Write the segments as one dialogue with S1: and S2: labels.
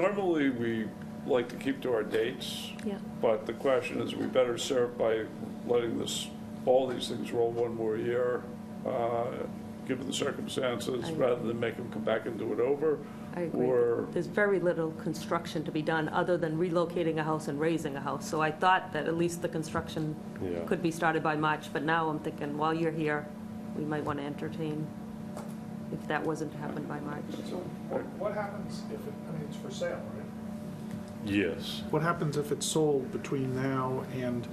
S1: Normally, we like to keep to our dates.
S2: Yeah.
S1: But the question is, we better serve by letting this, all these things roll one more year, uh, given the circumstances,
S2: I-
S1: rather than make them come back and do it over.
S2: I agree.
S1: Or,
S2: There's very little construction to be done, other than relocating a house and raising a house. So I thought that at least the construction
S3: Yeah.
S2: could be started by March, but now I'm thinking, while you're here, we might want to entertain if that wasn't to happen by March.
S4: So what, what happens if it, I mean, it's for sale, right?
S3: Yes.
S4: What happens if it's sold between now and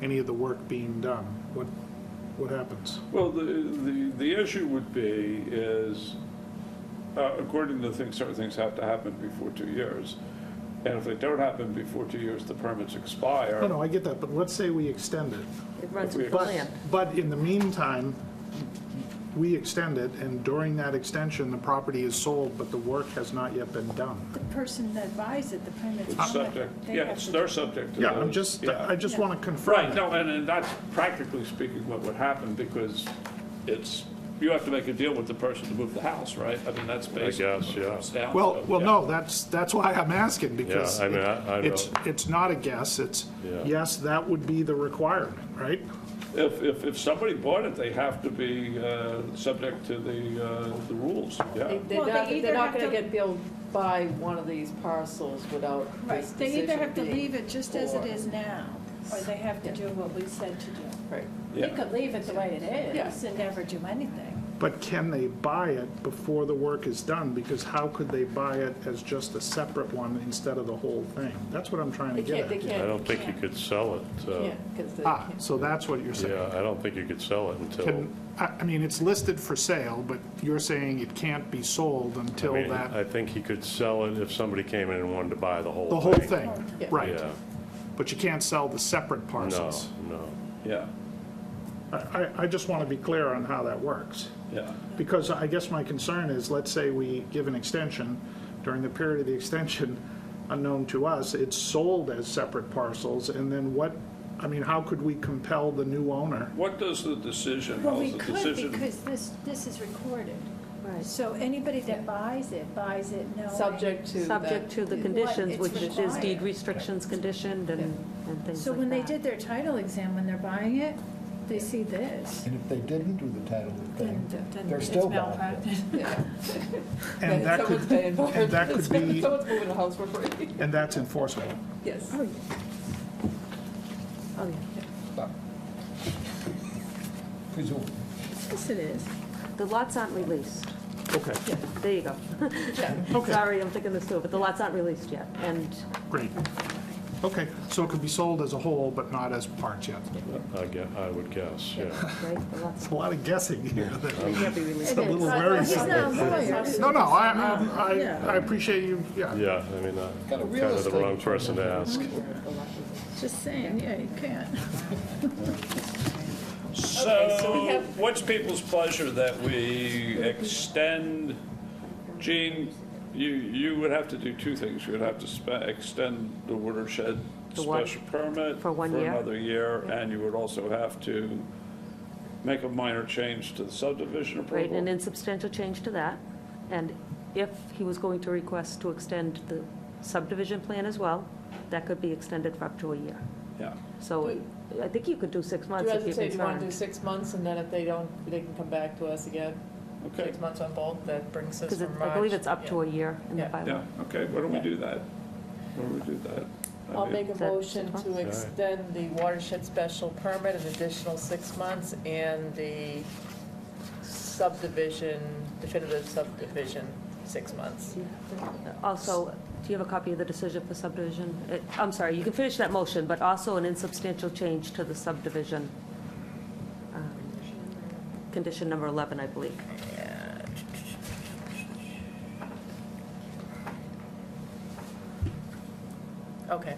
S4: any of the work being done? What, what happens?
S1: well, the, the, the issue would be is, uh, according to things, certain things have to happen before two years. And if they don't happen before two years, the permits expire.
S4: No, no, I get that, but let's say we extend it.
S2: It runs
S1: If we-
S2: with the
S4: But,
S2: land.
S4: but in the meantime, we extend it, and during that extension, the property is sold, but the work has not yet been done.
S5: The person that buys it, the permit.
S1: It's subject, yeah, it's- they're subject to those.
S4: Yeah, I'm just,
S1: yeah.
S4: I just want to confirm.
S1: Right, no, and, and that's practically speaking what would happen, because it's, you have to make a deal with the person to move the house, right? I mean, that's basically.
S3: guess,
S1: what it
S3: yeah.
S1: comes down
S4: Well,
S1: to,
S4: well,
S1: yeah.
S4: no, that's, that's why I'm asking, because
S3: Yeah, I mean, I- I
S4: it's,
S3: don't-
S4: it's not a guess, it's,
S3: Yeah.
S4: yes, that would be the requirement, right?
S1: If, if, if somebody bought it, they have to be, uh, subject to the, uh, the rules, yeah.
S6: They- They're
S5: Well, they
S6: not,
S5: either
S6: they're not
S5: have
S6: gonna
S5: to-
S6: get billed by one of these parcels without
S5: Right,
S6: this
S5: they either have to
S6: decision being-
S5: leave it just as it
S6: or-
S5: is now, or they have to do what we said to do.
S6: Right.
S5: They could leave it the way it is
S6: Yeah.
S5: and never do anything.
S4: But can they buy it before the work is done? Because how could they buy it as just a separate one instead of the whole thing? That's what I'm trying to
S6: They
S4: get
S6: can't, they
S4: at.
S6: can't.
S3: I don't think you could sell it. uh,
S6: Can't, 'cause they
S4: Ah,
S6: can't.
S4: so that's what you're
S3: Yeah,
S4: saying.
S3: I don't think you could sell it until,
S4: Can, I, I mean, it's listed for sale, but you're saying it can't be sold
S3: I
S4: until
S3: mean,
S4: that,
S3: I think he could sell it if somebody came in and wanted to buy the whole thing.
S4: the whole thing,
S6: Yeah.
S4: right?
S3: Yeah,
S4: But you can't sell the separate
S3: no,
S4: parcels.
S3: no.
S1: Yeah,
S4: I, I- I just want to be clear on how that works.
S1: yeah.
S4: Because I guess my concern is, let's say we give an extension, during the period of the extension, unknown to us, it's sold as separate parcels, and then what, I mean, how could we compel the new owner?
S1: What does the decision,
S5: Well,
S1: how's
S5: we
S1: the
S5: could,
S1: decision?
S5: because this, this is recorded.
S2: Right.
S5: So anybody that buys it, buys it knowing.
S6: Subject to.
S2: Subject
S6: that-
S2: to the
S6: yeah.
S2: conditions,
S5: it's
S2: which is deed
S5: required.
S2: restrictions conditioned and, and things
S5: So
S2: like
S5: when they
S2: that.
S5: did their title exam, when they're buying it, they see this.
S7: And if they didn't do the title
S5: Then-
S7: thing,
S5: then
S7: they're
S5: it's
S7: still bound.
S5: malpractice.
S6: Yeah.
S4: And that
S6: Someone's
S4: could,
S6: paying for
S4: and
S6: it.
S4: that could be,
S6: Someone's moving the house for free.
S4: and that's enforceable.
S6: Yes.
S2: Oh, yeah.
S7: Presumably.
S5: Yes, it is.
S2: The lots aren't released.
S4: Okay,
S2: There you go.
S4: okay,
S2: Sorry, I'm thinking this through, but the lots aren't released yet, and
S4: great. Okay, so it could be sold as a whole, but not as parts yet.
S3: I guess, I would guess, yeah.
S2: Right, the lots
S4: It's a lot of guessing here.
S2: they can't be released.
S4: a little
S5: He's
S4: worrisome.
S5: not a lawyer.
S4: No, no, I, I- I, I appreciate you, yeah.
S3: Yeah, I mean, I'm
S7: Got a
S3: kind
S7: real
S3: of the
S7: estate
S3: wrong person to ask.
S5: Just saying, yeah, you can't.
S1: So, what's people's pleasure that we extend? Gene, you, you would have to do two things. You would have to spe- extend the watershed
S2: The one-
S1: special permit.
S2: for one year?
S1: For another year, and you would also have to make a minor change to the subdivision
S2: Right, an
S1: approval.
S2: insubstantial change to that. And if he was going to request to extend the subdivision plan as well, that could be extended for up to a year.
S1: Yeah,
S2: So
S6: Do-
S2: I think you could do six
S6: Do
S2: months
S6: you
S2: if
S6: have
S2: you're
S6: to say, do you want to do
S2: concerned.
S6: six months, and then if they don't, they can come back to us again?
S1: okay,
S6: Six months on both, that brings us
S2: Because
S6: from March.
S2: I believe it's up to
S6: Yeah.
S2: a year in the
S6: Yeah.
S2: bylaw.
S1: yeah, okay, why don't we do that? Why don't we do that? I
S6: I'll
S1: mean,
S6: make a
S2: Is that
S6: motion
S2: six
S6: to
S3: Alright.
S6: extend the watershed special permit an additional six months and the subdivision, definitive subdivision, six months.
S2: Also, do you have a copy of the decision for subdivision? Uh, I'm sorry, you can finish that motion, but also an insubstantial change to the subdivision. um, Condition number 11, I believe.
S6: Okay.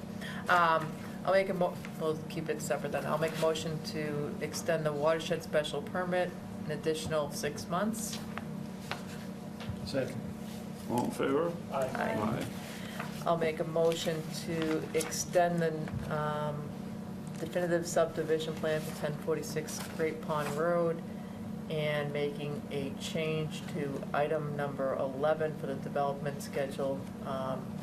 S6: Um, I'll make a mo, we'll keep it separate then. I'll make a motion to extend the watershed special permit an additional six months.
S7: Second.
S1: All in favor?
S6: Aye.
S1: Aye.
S6: I'll make a motion to extend the um, definitive subdivision plan for 1046 Great Pond Road and making a change to item number 11 for the development schedule, um,